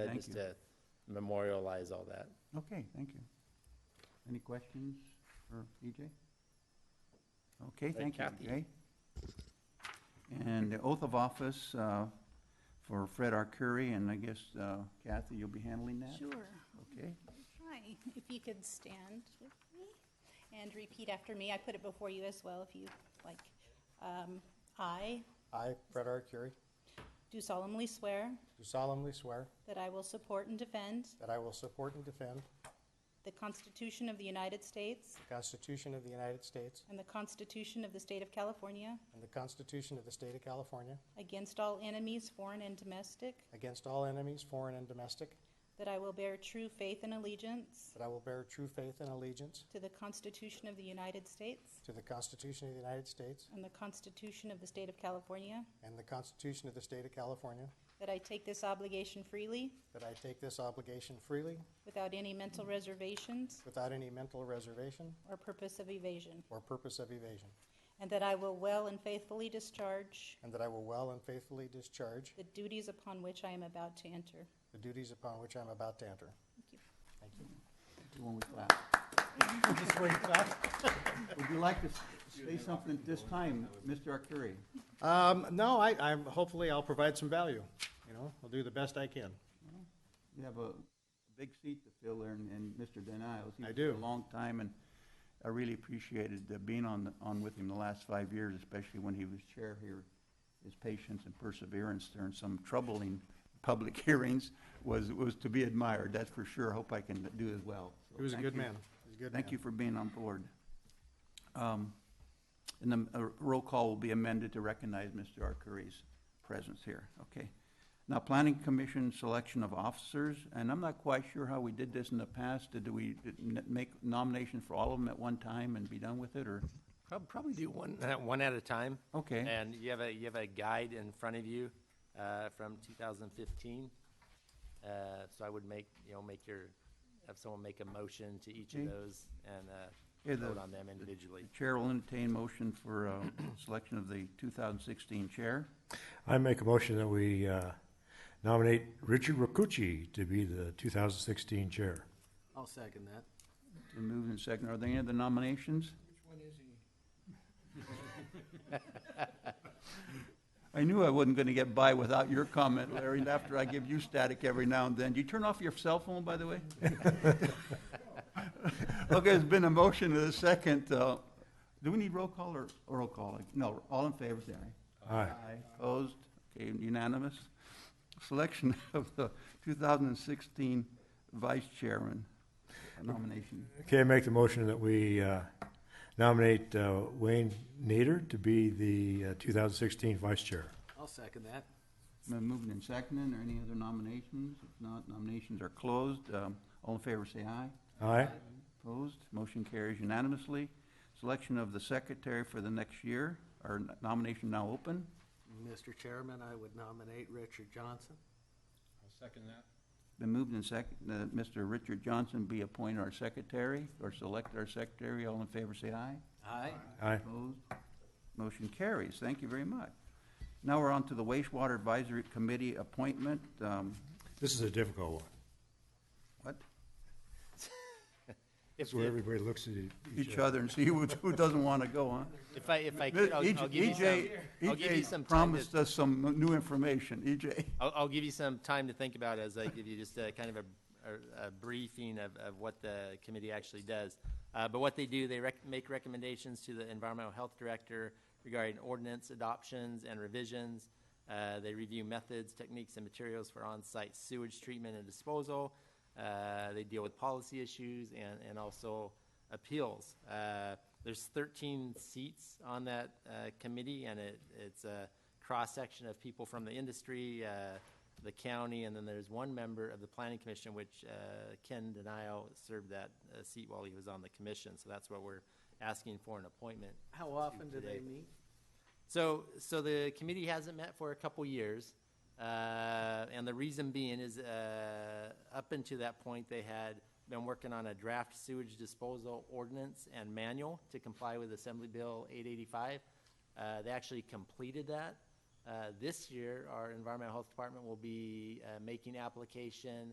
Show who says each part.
Speaker 1: said,
Speaker 2: Thank
Speaker 1: just
Speaker 2: you.
Speaker 1: to memorialize all that.
Speaker 2: Okay, thank you. Any questions for EJ? Okay, thank you,
Speaker 1: Kathy.
Speaker 2: EJ. And the oath of office uh, for Fred Arcuri, and I guess uh, Kathy, you'll be handling that?
Speaker 3: Sure.
Speaker 2: Okay,
Speaker 3: Hi, if you could stand with me and repeat after me. I put it before you as well if you like. Um, I
Speaker 4: I, Fred R. Curie,
Speaker 3: do solemnly swear
Speaker 4: do solemnly swear
Speaker 3: that I will support and defend
Speaker 4: that I will support and defend
Speaker 3: the Constitution of the United States
Speaker 4: the Constitution of the United States
Speaker 3: and the Constitution of the State of California
Speaker 4: and the Constitution of the State of California
Speaker 3: against all enemies, foreign and domestic,
Speaker 4: against all enemies, foreign and domestic,
Speaker 3: that I will bear true faith and allegiance
Speaker 4: that I will bear true faith and allegiance
Speaker 3: to the Constitution of the United States
Speaker 4: to the Constitution of the United States
Speaker 3: and the Constitution of the State of California,
Speaker 4: and the Constitution of the State of California,
Speaker 3: that I take this obligation freely
Speaker 4: that I take this obligation freely
Speaker 3: without any mental reservations
Speaker 4: without any mental reservation
Speaker 3: or purpose of evasion,
Speaker 4: or purpose of evasion,
Speaker 3: and that I will well and faithfully discharge
Speaker 4: and that I will well and faithfully discharge
Speaker 3: the duties upon which I am about to enter.
Speaker 4: the duties upon which I am about to enter.
Speaker 3: Thank you.
Speaker 4: Thank you.
Speaker 2: do one with clap. Would you like to s- say something at this time, Mr. Arcuri?
Speaker 4: Um, no, I, I'm, hopefully I'll provide some value, you know, I'll do the best I can.
Speaker 2: You have a big seat to fill there, and- and Mr. Denials.
Speaker 4: I
Speaker 2: He's been a
Speaker 4: do.
Speaker 2: long time, and I really appreciated uh, being on, the- on with him the last five years, especially when he was chair here. His patience and perseverance during some troubling public hearings was, was to be admired, that's for sure. I hope I can do as well. So
Speaker 4: He was a
Speaker 2: thank
Speaker 4: good
Speaker 2: you.
Speaker 4: man. He was a good
Speaker 2: Thank
Speaker 4: man.
Speaker 2: you for being on board. Um, And the uh, roll call will be amended to recognize Mr. Arcuri's presence here, okay? Now, Planning Commission selection of officers, and I'm not quite sure how we did this in the past. Did we did n- make nomination for all of them at one time and be done with it, or?
Speaker 1: Prob- Probably do one, uh, one at a time.
Speaker 2: Okay.
Speaker 1: And you have a, you have a guide in front of you uh, from 2015. Uh, So I would make, you know, make your, have someone make a motion to each of
Speaker 2: Okay.
Speaker 1: those and uh,
Speaker 2: Yeah, the-
Speaker 1: vote on them individually.
Speaker 2: The Chair will entertain motion for uh, selection of the 2016 chair.
Speaker 5: I make a motion that we uh, nominate Richard Rakucci to be the 2016 chair.
Speaker 6: I'll second that.
Speaker 2: Been moved and second. Are there any other nominations? I knew I wasn't gonna get by without your comment, Larry, after I give you static every now and then. Do you turn off your cell phone, by the way? Okay, it's been a motion and a second. uh, Do we need roll call or or roll call? No, all in favor, say aye.
Speaker 5: Aye.
Speaker 2: Opposed? Okay, unanimous. Selection of the 2016 vice chairman nomination.
Speaker 5: Okay, I make the motion that we uh, nominate uh, Wayne Nader to be the uh, 2016 vice chair.
Speaker 6: I'll second that.
Speaker 2: Been moved and seconded. Are any other nominations? If not, nominations are closed. Um, All in favor, say aye.
Speaker 5: Aye?
Speaker 2: Opposed? Motion carries unanimously. Selection of the secretary for the next year. Our nomination now open.
Speaker 6: Mr. Chairman, I would nominate Richard Johnson.
Speaker 2: Been moved and second, that Mr. Richard Johnson be appointed our secretary, or select our secretary. All in favor, say aye.
Speaker 6: Aye.
Speaker 5: Aye.
Speaker 2: Opposed? Motion carries. Thank you very much. Now we're on to the wastewater advisory committee appointment. Um,
Speaker 5: This is a difficult one.
Speaker 2: What?
Speaker 1: If,
Speaker 5: It's where everybody looks at
Speaker 2: Each other and see who who doesn't want to go, huh?
Speaker 1: if I, if I could, I'll
Speaker 2: E
Speaker 1: I'll give you some,
Speaker 2: EJ,
Speaker 1: I'll give you some time to-
Speaker 2: EJ E promised us some new information. E EJ,
Speaker 1: I'll, I'll give you some time to think about it as I give you just a kind of a, a- a briefing of, of what the committee actually does. Uh, but what they do, they rec- make recommendations to the environmental health director regarding ordinance adoptions and revisions. Uh, they review methods, techniques, and materials for on-site sewage treatment and disposal. Uh, they deal with policy issues and, and also appeals. Uh, there's 13 seats on that uh, committee, and it, it's a cross-section of people from the industry, uh, the county, and then there's one member of the planning commission, which uh, Ken Denio served that uh, seat while he was on the commission. So that's what we're asking for an appointment.
Speaker 6: How often do they
Speaker 1: today.
Speaker 6: meet?
Speaker 1: So, so the committee hasn't met for a couple years, uh, and the reason being is, uh, up until that point, they had been working on a draft sewage disposal ordinance and manual to comply with Assembly Bill eight eighty-five. Uh, they actually completed that, Uh, This year, our Environmental Health Department will be uh, making application